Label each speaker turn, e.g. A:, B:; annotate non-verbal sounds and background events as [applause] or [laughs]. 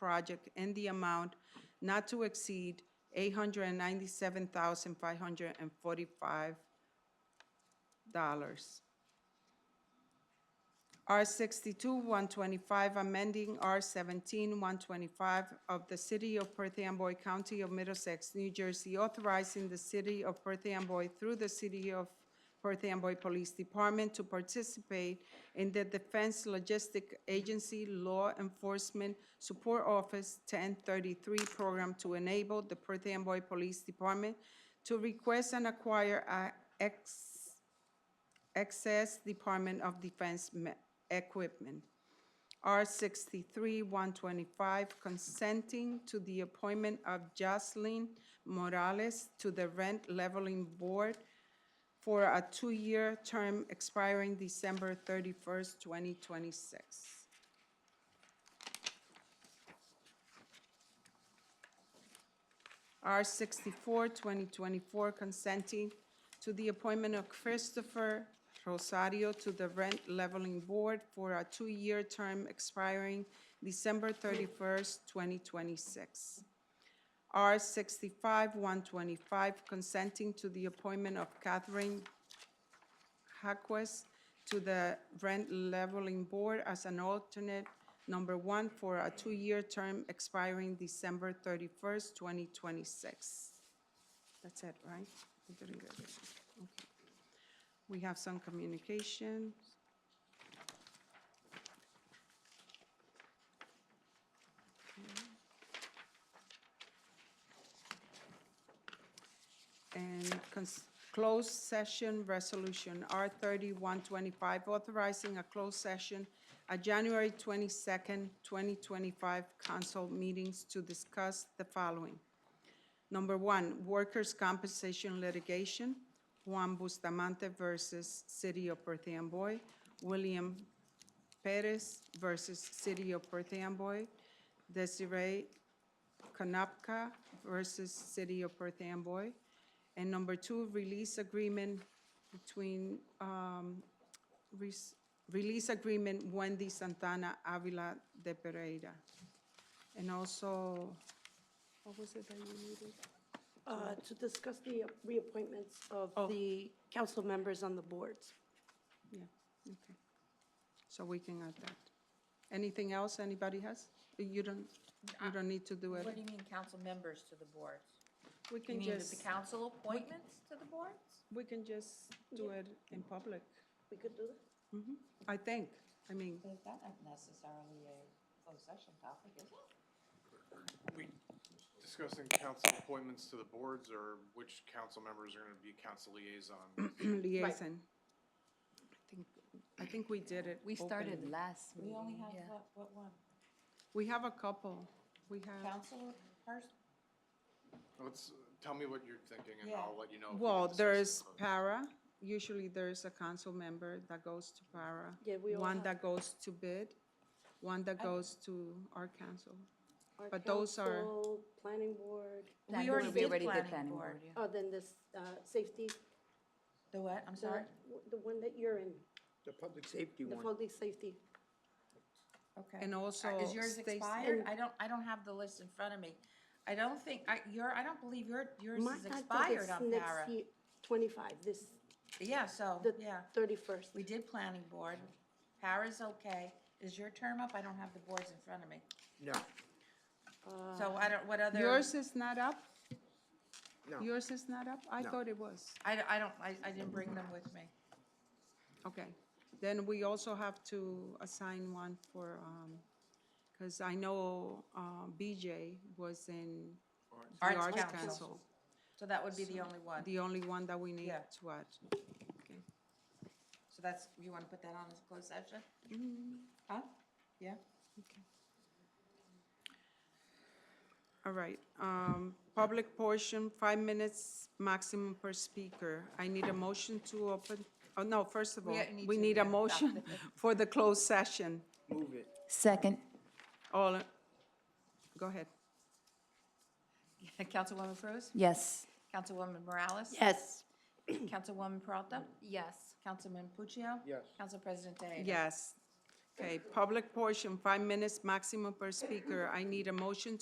A: project in the amount not to exceed eight hundred and ninety-seven thousand five hundred and forty-five dollars. R sixty-two, one twenty-five, amending R seventeen, one twenty-five of the City of Perth Amboy County of Middlesex, New Jersey, authorizing the City of Perth Amboy through the City of Perth Amboy Police Department to participate in the Defense Logistic Agency Law Enforcement Support Office ten thirty-three program to enable the Perth Amboy Police Department to request and acquire a ex excess Department of Defense me- equipment. R sixty-three, one twenty-five, consenting to the appointment of Jocelyn Morales to the Rent Leveling Board for a two-year term expiring December thirty-first, twenty twenty-six. R sixty-four, twenty twenty-four, consenting to the appointment of Christopher Rosario to the Rent Leveling Board for a two-year term expiring December thirty-first, twenty twenty-six. R sixty-five, one twenty-five, consenting to the appointment of Catherine Haquez to the Rent Leveling Board as an alternate number one for a two-year term expiring December thirty-first, twenty twenty-six. That's it, right? I didn't get it. Okay. We have some communication. And cons- closed session resolution, R thirty-one twenty-five, authorizing a closed session at January twenty-second, twenty twenty-five council meetings to discuss the following. Number one, workers' compensation litigation, Juan Bustamante versus City of Perth Amboy, William Perez versus City of Perth Amboy, Desiree Kanapka versus City of Perth Amboy. And number two, release agreement between, um, res- release agreement Wendy Santana Avila de Pereira. And also, what was it that you needed?
B: Uh, To discuss the reappointments
A: Oh.
B: of the council members on the boards.
A: Yeah, okay. So we can add that. Anything else anybody has? You don't, you don't need to do it.
C: What do you mean, council members to the boards?
A: We
C: You
A: can
C: mean with the
A: just,
C: council appointments to the boards?
A: we can just do it in public,
B: We could do that?
A: I think. I mean,
C: But that isn't necessarily a closed session topic, is it?
D: We discussing council appointments to the boards or which council members are gonna be council
A: [clears throat]
D: liaison?
A: liaison. I think, I think we did it.
E: We started
A: openly.
E: last meeting.
C: We only have,
E: yeah.
C: what, what one?
A: We have a couple. We have,
C: Council person?
D: Let's, tell me what you're thinking and
C: Yeah.
D: I'll let you know. if we can
A: well,
D: discuss it
A: there's
D: further.
A: para. Usually there's a council member that goes to para.
B: Yeah, we all
A: One
B: have-
A: that goes to bid, one that goes to our council.
B: Our
A: But those are-
B: council, Planning board,
E: Planning
C: already
E: board,
C: did
E: We already
C: planning
E: did planning
C: board. Uh,
E: board, yeah.
B: oh, then this uh, safety,
C: The what, I'm
B: the
C: sorry?
B: the one that you're in,
F: The public safety
B: the
F: one.
B: public safety.
C: Okay.
A: And
C: Uh,
A: also
C: Is yours
A: Stacy-
C: expired? I don't, I don't have the list in front of me. I don't think, I, your, I don't believe your, yours
B: Mine-
C: is
B: I think
C: expired
B: it's
C: on
B: next
C: para.
B: year, Twenty-five, this,
C: Yeah, so,
B: the
C: yeah.
B: thirty-first.
C: We did planning board. Para's okay. Is your term up? I don't have the boards in front of me.
F: No,
C: So I don't, what other?
A: Yours is not up?
F: no.
A: Yours is not up? I
F: No.
A: thought it was.
C: I, I don't, I, I didn't bring them with me.
A: Okay. Then we also have to assign one for, um, because I know, uh, BJ was in the
C: Arts
A: Arts
C: Council.
A: Council.
C: So that would be the only one.
A: The only one that we need
C: Yeah.
A: to add. Okay.
C: So that's, you want to put that on as a closed session? Huh? Yeah?
A: All right, um, public portion, five minutes maximum per speaker. I need a motion to open, oh, no, first of all,
C: Yeah, you need
A: we
C: to,
A: need a
C: yeah. [laughs]
A: motion for the closed session.
F: Move it.
E: Second.
A: All, go ahead.
C: [laughs] Councilwoman Cruz?
E: Yes.
C: Councilwoman Morales?
E: Yes.
C: Councilwoman Peralta?
E: Yes.
C: Councilman Puccio?
F: Yes.
C: Council President Day.
A: Yes. Okay, public portion, five minutes maximum per speaker. I need a motion to